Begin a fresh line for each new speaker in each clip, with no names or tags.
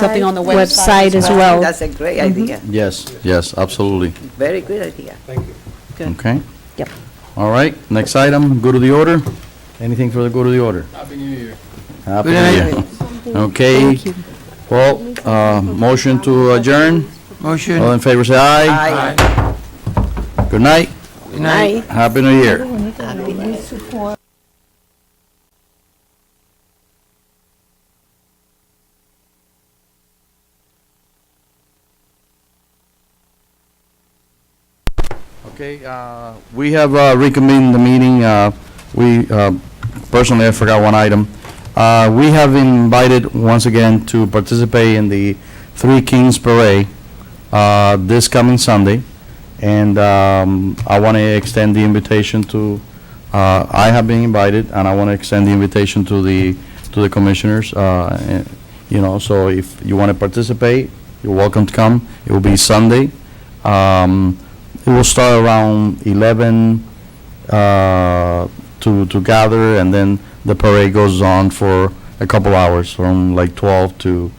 something on the
Website
website
as well.
That's a great idea,
Yes, yes, absolutely.
very good idea.
Thank you.
Good.
Okay.
Yep.
All right, next item, go to the order. Anything for the go to the order?
Happy New Year.
Happy New Year. Okay.
Thank you.
Well, uh, motion to adjourn.
Motion.
All in favor, say aye.
Aye.
Good night.
Good night.
Happy New Year. Okay, uh, we have uh, reconvened the meeting. Uh, We, uh, personally, I forgot one item. Uh, We have invited, once again, to participate in the Three Kings Parade uh, this coming Sunday, and um, I want to extend the invitation to, uh, I have been invited, and I want to extend the invitation to the, to the commissioners, uh, and, you know, so if you want to participate, you're welcome to come. It will be Sunday. Um, It will start around 11 uh, to to gather, and then the parade goes on for a couple hours, from like 12 to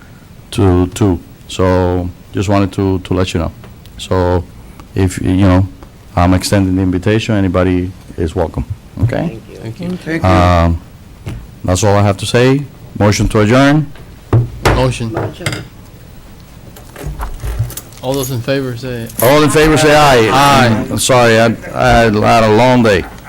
to 2. So just wanted to to let you know. So if, you know, I'm extending the invitation, anybody is welcome, okay?
Thank you.
Thank you.
Um, That's all I have to say. Motion to adjourn?
Motion. All those in favor say
All in favor, say aye. Aye. Sorry, I I had a long day.